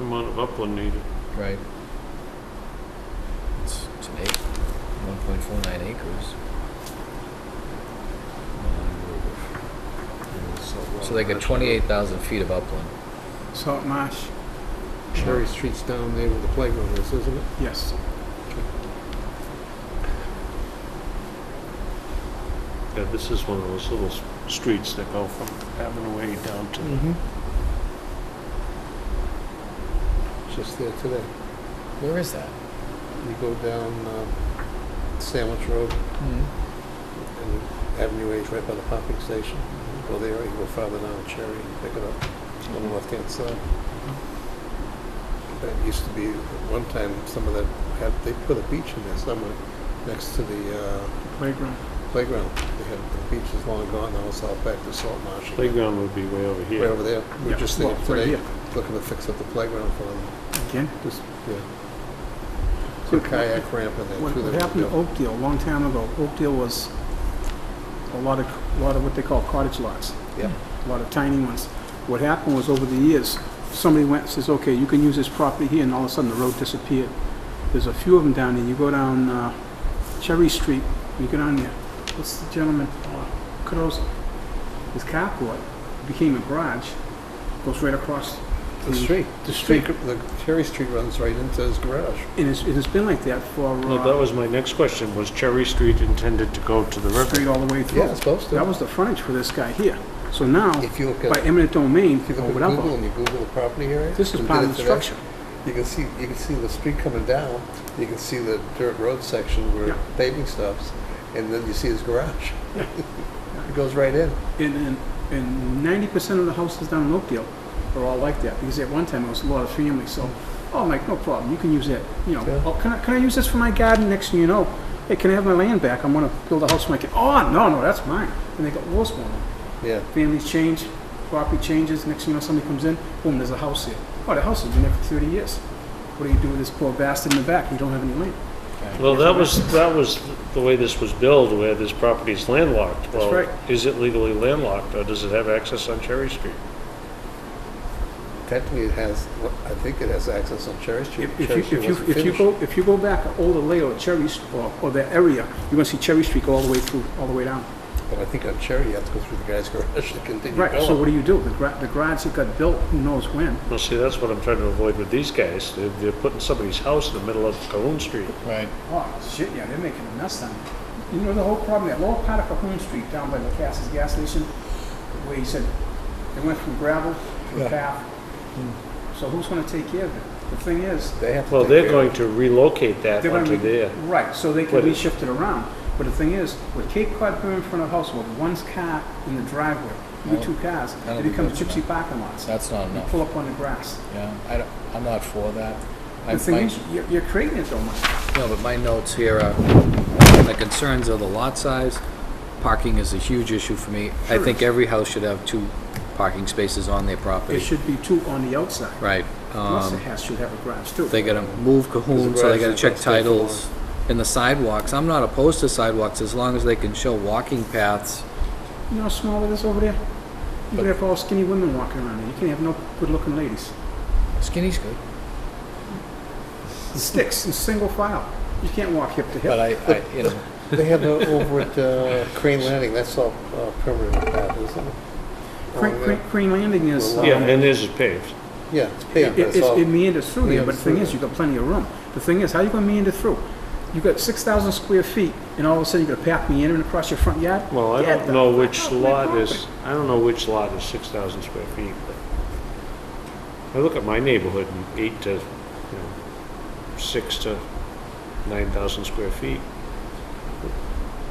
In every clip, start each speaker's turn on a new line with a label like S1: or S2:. S1: amount of upland needed.
S2: Right. It's, it's an acre, one point four nine acres. So they got twenty-eight thousand feet of upland.
S3: Salt Marsh,
S4: Cherry Street's down there where the playground is, isn't it?
S3: yes.
S1: Yeah, this is one of those little s- streets that go from Avonway down to,
S3: Mm-hmm.
S4: Just there today.
S2: Where is that?
S4: You go down uh, Sandwich Road and Avenue H right by the pumping station.
S3: Mm-hmm.
S4: Go there, you go farther down Cherry and pick it up on the left-hand side.
S3: Mm-hmm.
S4: That used to be, at one time, some of that, had, they put a beach in there somewhere next to the uh,
S3: Playground.
S4: playground. They had, the beach is long gone, now it's all back to salt marsh. again.
S1: playground would be way over
S4: Right
S1: here.
S4: over there. We
S3: Yeah.
S4: We're just there
S3: Well, right
S4: today,
S3: here.
S4: looking to fix up the playground for them.
S3: Again,
S4: Just, yeah. Put a kayak ramp in there
S3: what
S4: too.
S3: what
S4: that we
S3: happened to
S4: built.
S3: Oakdale a long time ago? Oakdale was a lot of, a lot of what they call cottage lots.
S4: Yeah.
S3: a lot of tiny ones. What happened was over the years, somebody went and says, okay, you can use this property here, and all of a sudden the road disappeared. There's a few of them down there. You go down uh, Cherry Street, you go down there. What's the gentleman? uh, Kudos. His carport became a garage, goes right across.
S4: The street, the street, the Cherry Street runs right into his garage.
S3: And it's, it's been like that for
S1: No, that
S3: uh,
S1: was my next question, was Cherry Street intended to go to the river?
S3: straight all the way
S4: Yeah,
S3: through.
S4: it's supposed
S3: That
S4: to.
S3: was the frontage for this guy here. So now,
S4: If you look
S3: by
S4: at, if
S3: eminent domain or
S4: you look at Google
S3: whatever,
S4: and you Google the property area.
S3: this is
S4: and
S3: part
S4: did
S3: of the
S4: it today,
S3: structure.
S4: You can see, you can see the street coming down, you can see the dirt road section
S3: Yeah.
S4: where paving stops, and then you see his garage. It goes right in.
S3: And, and, and ninety percent of the houses down in Oakdale are all like that, because at one time it was a lot of families, so, oh, I'm like, no problem, you can use that, you know,
S4: Yeah.
S3: oh, can I, can I use this for my garden, next thing you know, hey, can I have my land back, I'm gonna build a house for my kid, oh, no, no, that's mine, and they go, well, it's mine.
S4: Yeah,
S3: Families change, property changes, next thing you know, somebody comes in, boom, there's a house here, oh, the house has been there for thirty years, what do you do with this poor bastard in the back, you don't have any land?
S1: Well, that was, that was the way this was billed, where this property is landlocked. Well,
S3: right.
S1: Is it legally landlocked, or does it have access on Cherry Street?
S4: technically it has, I think it has access on Cherry Street.
S3: If if
S4: Cherry
S3: you,
S4: Street
S3: if you, if
S4: wasn't
S3: you
S4: finished.
S3: go, if you go back all the layout of Cherry, St- or, or the area, you're gonna see Cherry Street go all the way through, all the way down.
S4: But I think on Cherry, you have to go through the guy's garage to continue
S3: Right, so
S4: going.
S3: what do you do? The gra, the garage that got built, who knows when?
S1: Well, see, that's what I'm trying to avoid with these guys. They're, they're putting somebody's house in the middle of Calhoun Street.
S2: Right.
S3: Oh, shit, yeah, they're making a mess on it. You know the whole problem, that lower part of Cahoon Street down by the Cass's gas station, where you said, it went from gravel to a
S4: Yeah.
S3: path. So who's gonna take care of it? The thing is,
S4: They have to
S1: Well,
S4: take
S1: they're
S4: care-
S1: going to relocate that
S3: They're gonna
S1: onto
S3: be-
S1: there.
S3: Right, so they can
S1: But
S3: be
S1: it-
S3: shifted around. But the thing is, with Cape Cod Pier in front of the house, with one's car in the driveway, you
S2: No.
S3: two cars,
S2: That'll
S3: it
S2: be
S3: becomes
S2: good for
S3: gypsy parking lots.
S2: That's not
S3: You
S2: enough.
S3: pull up on the grass.
S2: Yeah, I don't, I'm not for that. I-
S3: The thing
S2: my-
S3: is, you're, you're creating it though, Mike.
S2: No, but my notes here are, the concerns are the lot size, parking is a huge issue for me. I
S3: Sure.
S2: think every house should have two parking spaces on their
S3: It
S2: property.
S3: should be two on the outside.
S2: Right.
S3: Plus the
S2: um,
S3: house should have a garage too.
S2: They gotta move Cahoon, so they gotta check
S4: There's a garage in the back,
S2: titles. And the sidewalks, I'm not opposed to sidewalks as long as they can show walking paths.
S3: You know how small it is over there? You could have all skinny women walking around there. You can't have no good-looking ladies.
S2: Skinny's good.
S3: Sticks in single file. You can't walk hip to
S2: But
S3: hip.
S2: I, I, you know,
S4: They have the, over at uh, Crane Landing, that's all uh, permanent path, isn't it?
S3: Crane,
S4: Over
S3: Crane- Crane Landing is,
S4: Well,
S3: um,
S1: Yeah, and this is paved.
S4: there. Yeah, it's
S3: It,
S4: paved,
S3: it,
S4: that's all.
S3: it's- it meanders through there, but
S4: Meanders
S3: the thing
S4: through
S3: is, you've got plenty of room. The thing is, how you gonna meander through? You've got six thousand square feet, and all of a sudden you're gonna path meandering across your front yard?
S1: Well, I
S3: Get
S1: don't
S3: the
S1: know
S3: fuck
S1: which
S3: off my
S1: lot
S3: property.
S1: is, I don't know which lot is 6,000 square feet, but I look at my neighborhood and eight to, you know, six to 9,000 square feet.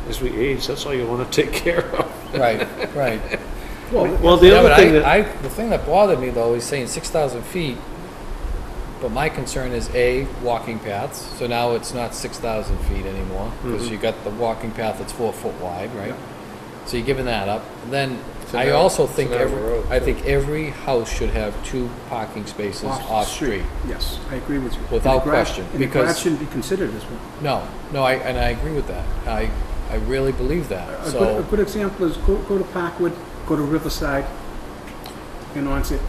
S1: As we age, that's all you want to take care of.
S2: right, right.
S3: Well,
S1: Well, the
S2: Yeah,
S1: other
S2: but
S1: thing
S2: I-
S1: that,
S2: I, the thing that bothered me though is saying six thousand feet. But my concern is A, walking paths, so now it's not six thousand feet anymore, because you got the walking path that's four foot wide, right? So you're giving that up, then
S4: So
S2: I
S4: now-
S2: also
S4: so
S2: think
S4: now the
S2: every,
S4: road,
S2: I
S4: too.
S2: think every house should have two parking spaces off-street.
S3: Yes, I agree with you. And the
S2: Without
S3: garage-
S2: question,
S3: And the garage
S2: because-
S3: shouldn't be considered as one.
S2: No, no, I, and I agree with that, I, I really believe that,
S3: A good, a
S2: so,
S3: good example is go, go to Parkwood, go to Riverside, and on it.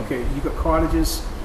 S3: Okay, you've got cottages,